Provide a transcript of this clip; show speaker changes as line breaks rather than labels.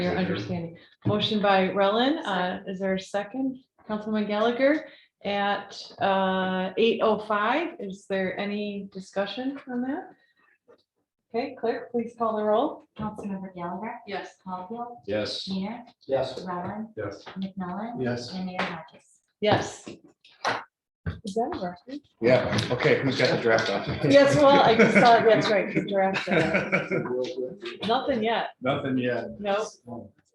your understanding. Motion by Rellin, uh, is there a second? Councilman Gallagher at, uh, eight oh five. Is there any discussion on that? Okay, clerk, please call the roll.
Councilmember Gallagher,
Yes.
Caulfield,
Yes.
Mayor,
Yes.
Rowland,
Yes.
McMillan,
Yes.
and Mayor Hodges.
Yes. Is that a reference?
Yeah, okay, who's got the draft on?
Yes, well, I just saw, that's right, you drafted it.
right.
uh, Nothing yet.
Nothing yet.
Nope.